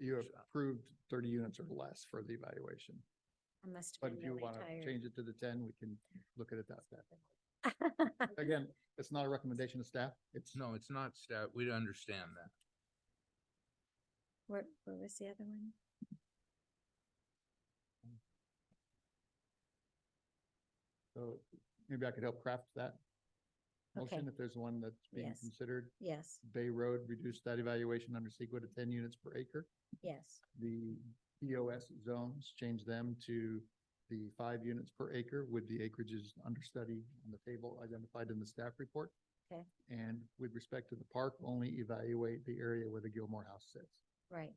you workshop. approved thirty units or less for the evaluation. I must But have if been you really want to tired. change it to the ten, we can look at it that way. Again, it's not a recommendation of staff. It's No, it's not stat, we understand that. What, what was the other one? So maybe I could help craft that Okay, motion if there's one that's being Yes. considered. yes, Bay Road reduced that evaluation under CEQA to ten units per acre. yes, The EOS zones, change them to the five units per acre with the acreages under study on the table identified in the staff report. Okay. And with respect to the park, only evaluate the area where the Gilmore House sits. right.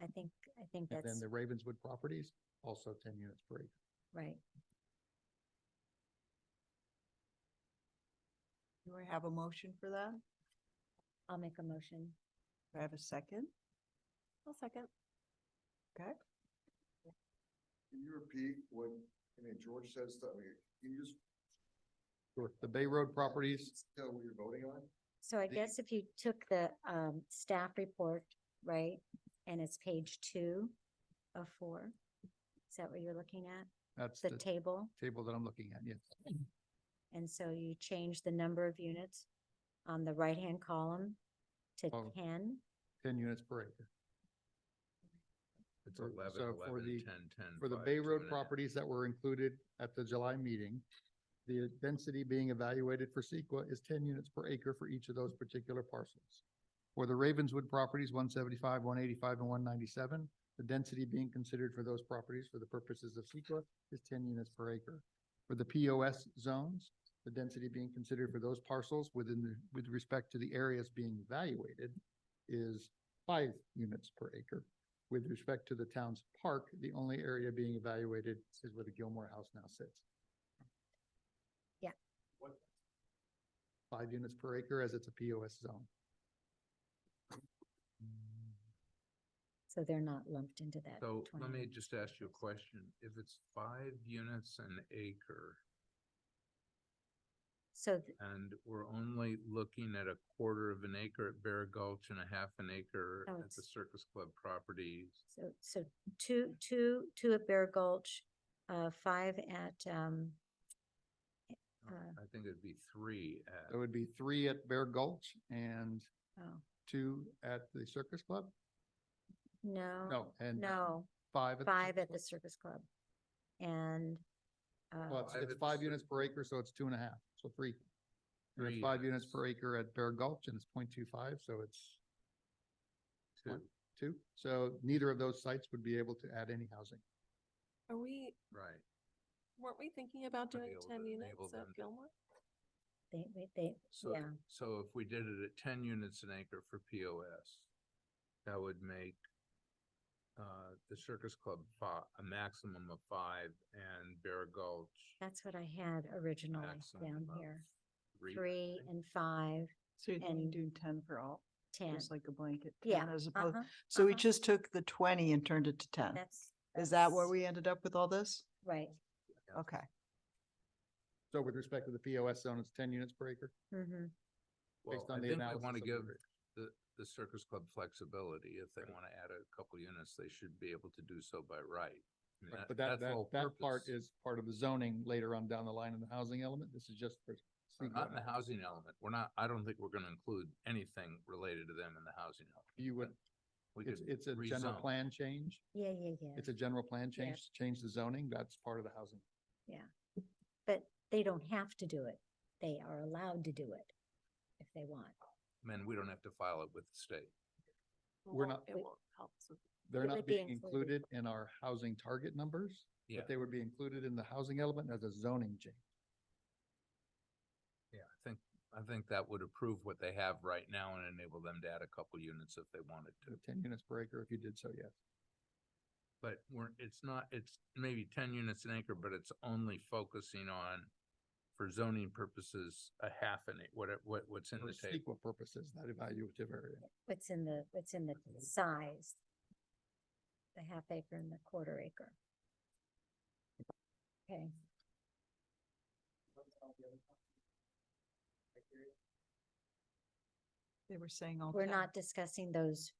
I think, I think And then that's the Ravenswood properties, also ten units per acre. right. Do I have a motion for that? I'll make a motion. Do I have a second? I'll second. Okay. Can you repeat what, I mean, George says that, I mean, can you just Sure. The Bay Road properties, tell what you're voting on? So I The- guess if you took the um staff report, right, and it's page two of four. Is that what you're looking at? that's The the table? table that I'm looking at, yes. And so you change the number of units on the right-hand column to Oh. ten. ten units per acre. It's So- eleven, so for eleven, the- ten, ten. For the five, Bay two Road and a half. properties that were included at the July meeting, the density being evaluated for CEQA is ten units per acre for each of those particular parcels. For the Ravenswood properties, one seventy-five, one eighty-five, and one ninety-seven, the density being considered for those properties for the purposes of CEQA is ten units per acre. For the POS zones, the density being considered for those parcels within the, with respect to the areas being evaluated is five units per acre. With respect to the town's park, the only area being evaluated is where the Gilmore House now sits. Yeah. What? Five units per acre as it's a POS zone. So they're not lumped into that. So let 20 me just ask you a question. If it's five units an acre So th- and we're only looking at a quarter of an acre at Bear Gulch and a half an acre No, at the it's- Circus Club properties, So, so two, two, two at Bear Gulch, uh, five at, um, uh, Uh, I think it'd be three There at, would be three at Bear Gulch and oh, two at the Circus Club? no. No, and No, five. at the five Circus at the Circus Club. And, Club? Well, uh, it's- Five it's at the five Circus. units per acre, so it's two and a half, so three. So it's Three Five units units. per acre at Bear Gulch and it's 0.25, so it's two, One. two. So neither of those sites would be able to add any housing. Are we, right? weren't we thinking about Might be doing able ten to units enable them at to- Gilmore? they, they- they, So, Yeah. so if we did it at ten units an acre for POS, that would make uh, the Circus Club fi- a maximum of five and Bear Gulch that's what I had originally down maximum of here. uh, three. I Three think. and five, So you're thinking And- do ten for all, ten. just like a blanket? Yeah, 10 As opposed, Uh-huh, so we uh-huh. just took the twenty and turned it to ten. that's. Is that where that's we ended up with all this? Right. Yeah. Okay. So with respect to the POS zone, it's ten units per acre, hmm Well, based on I the think analysis. we want to of the give grid. the, the Circus Club flexibility. If they want to add a couple units, they should be able to do so by right. I mean, Right, But that, that's the that, whole that part purpose. is part of the zoning later on down the line in the housing element. This is just for. But Not in the housing element. We're not, I don't think we're going to include anything related to them in the housing element. You would, We it's, could it's a general rezone. plan change. yeah, yeah, yeah. It's a general plan change, change the zoning. That's part of the housing. But they don't have to do it. They are allowed to do it if they want. Man, we don't have to file it with the state. It We're won't- not- It won't help us with They're It not would be being included. included in our housing target numbers, Yeah. but they would be included in the housing element as a zoning change. Yeah, I think, I think that would approve what they have right now and enable them to add a couple units if they wanted to to. Ten units per acre if you did so, yes. But we're, it's not, it's maybe ten units an acre, but it's only focusing on, for zoning purposes, a half an, ac- what, it- what, what's in For the table. sequel purposes, that evaluative area. What's in the, what's in the size? The half acre and the quarter acre. Okay, They were saying all we're 10. not discussing those